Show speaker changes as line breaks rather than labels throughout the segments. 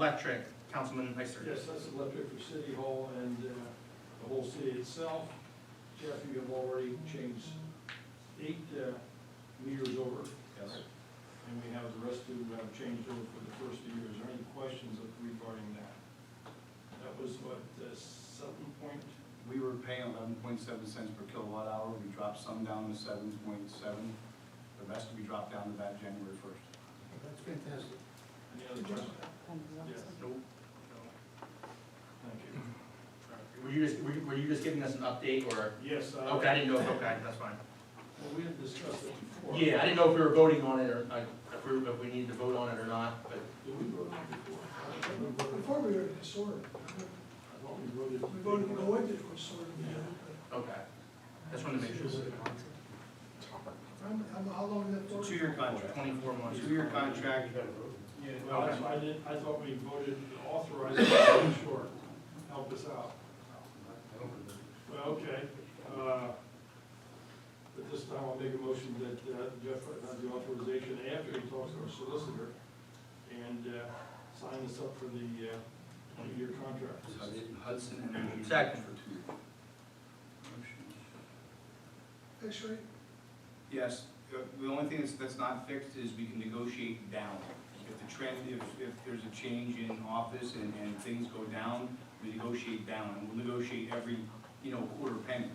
Electric, Councilman Heister.
Yes, that's electric for City Hall and uh, the whole city itself. Jeff, you have already changed eight uh, meters over.
Yes.
And we have the rest who have changed over for the first year. Is there any questions regarding that? That was what, uh, seven point?
We were paying eleven point seven cents per kilowatt hour, we dropped some down to seven point seven, the rest we dropped down to that January first.
That's fantastic.
Any other questions? Yes,
Nope.
thank you.
No. Were you just, were you- were you just giving us an update or?
Yes. uh,
Okay, I didn't know, if- okay, that's fine.
Well, we had discussed it before.
Yeah, I didn't know if we were voting on it or, like, if we, if we needed to vote on it or not, but
Did we vote on it before? I thought we voted-
Before we were disordered,
I thought we voted.
we voted to go into disorder.
Okay, just wanted to make sure.
How long did that
It's a
for?
two-year contract,
Twenty-four months.
two-year contract,
Yeah, well, that's why I did, I thought we voted to authorize it, I'm not sure, help us out. Well, okay, uh, at this time, I'll make a motion that uh, Jeff has the authorization after he talks to our solicitor and, uh, sign this up for the, uh, twenty-year contract.
So it- Hudson Energy.
Second.
For two. Motion.
X-ray,
Yes, uh, the only thing that's, that's not fixed is we can negotiate down. If the trend, if, if there's a change in office and, and things go down, we negotiate down, and we'll negotiate every, you know, quarter penny.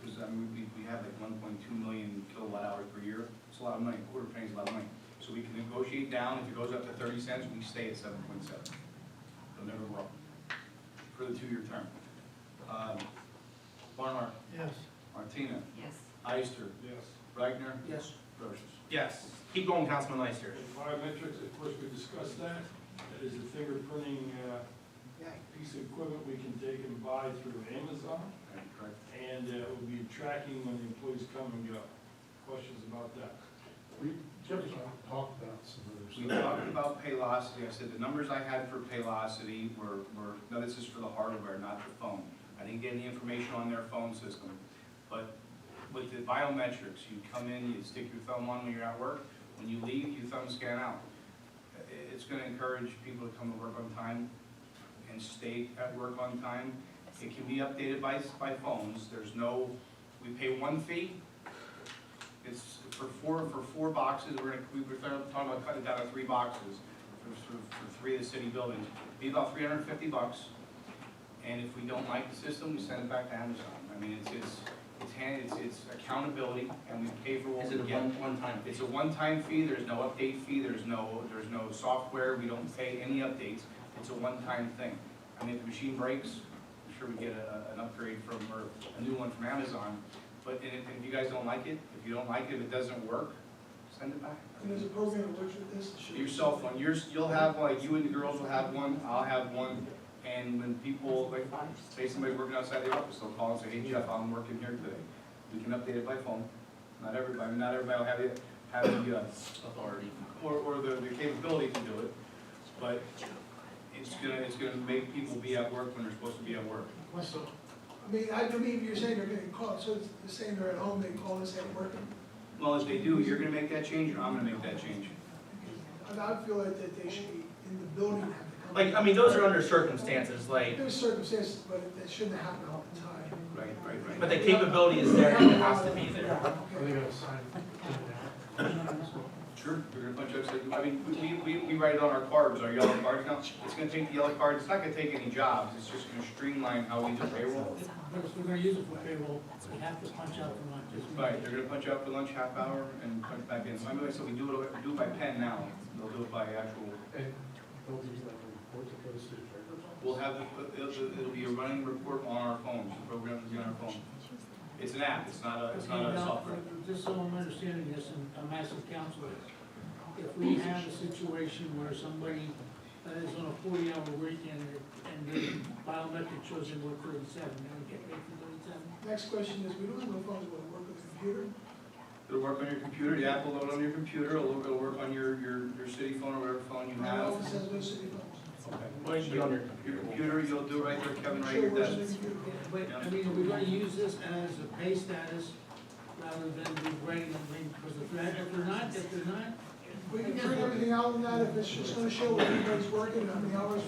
Because, I mean, we, we have like one point two million kilowatt hours per year, it's a lot of money, quarter penny's a lot of money. So we can negotiate down, if it goes up to thirty cents, we stay at seven point seven. It'll never go up, for the two-year term. Um, Barnhart,
yes.
Martina,
Yes.
Ister,
Yes.
Reichner,
Yes.
Brochus.
Yes, keep going, Councilman Heister.
And Biometrics, of course, we discussed that, that is a fingerprinting, uh, piece of equipment we can take and buy through Amazon.
Correct.
And uh, it will be tracking when the employees come and go. Questions about that?
We, Jim's talked about some of
We
this.
talked about Paylocity, I said the numbers I had for Paylocity were, were, no, this is for the hardware, not the phone. I didn't get any information on their phone system, but with the biometrics, you come in, you stick your thumb on when you're at work, when you leave, you thumb scan out. I- It's gonna encourage people to come to work on time and stay at work on time. It can be updated by, by phones, there's no, we pay one fee, It's for four, for four boxes, we're gonna, we were talking about cutting it down to three boxes for, for, for three of the city buildings. Be about three hundred and fifty bucks, and if we don't like the system, we send it back to Amazon. I mean, it's, it's, it's hand, it's, it's accountability, and we pay for what
Is
we
it a
get.
one, one-time fee?
It's a one-time fee, there's no update fee, there's no, there's no software, we don't pay any updates, it's a one-time thing. I mean, if the machine breaks, I'm sure we get a, an upgrade from, or a new one from Amazon, but and if, if you guys don't like it, if you don't like it, if it doesn't work, send it back.
And there's a program that works with this.
Your cell phone, yours, you'll have, like, you and the girls will have one, I'll have one, and when people, like, say somebody's working outside the office, they'll call and say, hey Jeff, I'm working here today. We can update it by phone, not everybody, not everybody will have it, have the, uh,
Authority.
or, or the, the capability to do it, but it's gonna, it's gonna make people be at work when they're supposed to be at work.
Myself,
I mean, I believe you're saying they're getting caught, so it's the same, they're at home, they call us at work.
Well, if they do, you're gonna make that change, or I'm gonna make that change.
And I feel like that they should be in the building. at the company.
Like, I mean, those are under circumstances, like,
There's circumstances, but it shouldn't happen all the time.
Right, right,
but
right.
the capability is there, and it has to be there.
are they gonna sign it down?
Sure. You're gonna punch up, say, I mean, we, we, we write it on our cards, our yellow cards now, it's gonna take the yellow card, it's not gonna take any jobs, it's just gonna streamline how we do payroll.
If we're gonna use it for payroll, we have to punch out the lunches.
Right, they're gonna punch out for lunch half hour and punch back in, so I'm gonna, so we do it, do it by pen now, they'll do it by actual
And they'll give you like a report that goes to the treasurer's office?
We'll have, the- it'll, it'll be a running report on our phones, the program will be on our phone. It's an app, it's not a, it's not a
Okay, now,
software.
Just so I'm understanding this, and I'm asking council, if we have a situation where somebody uh, is on a forty-hour week and, and the biometric shows him work thirty-seven, then we get paid for thirty-seven?
Next question is, we don't have no phones, but work with a computer.
It'll work on your computer, the app will load on your computer, it'll, it'll work on your, your, your city phone or whatever phone you
My
have.
office has no city phones.
Well, you can
Okay.
on your
Your
computer.
computer, you'll do right there, Kevin, right at
Sure
your
works on
desk.
the computer.
But, I mean, are we gonna use this as a pay status rather than be grading them, because if they're, if they're not, if they're not
we can print everything out on that if it's just gonna show what everybody's working, how many hours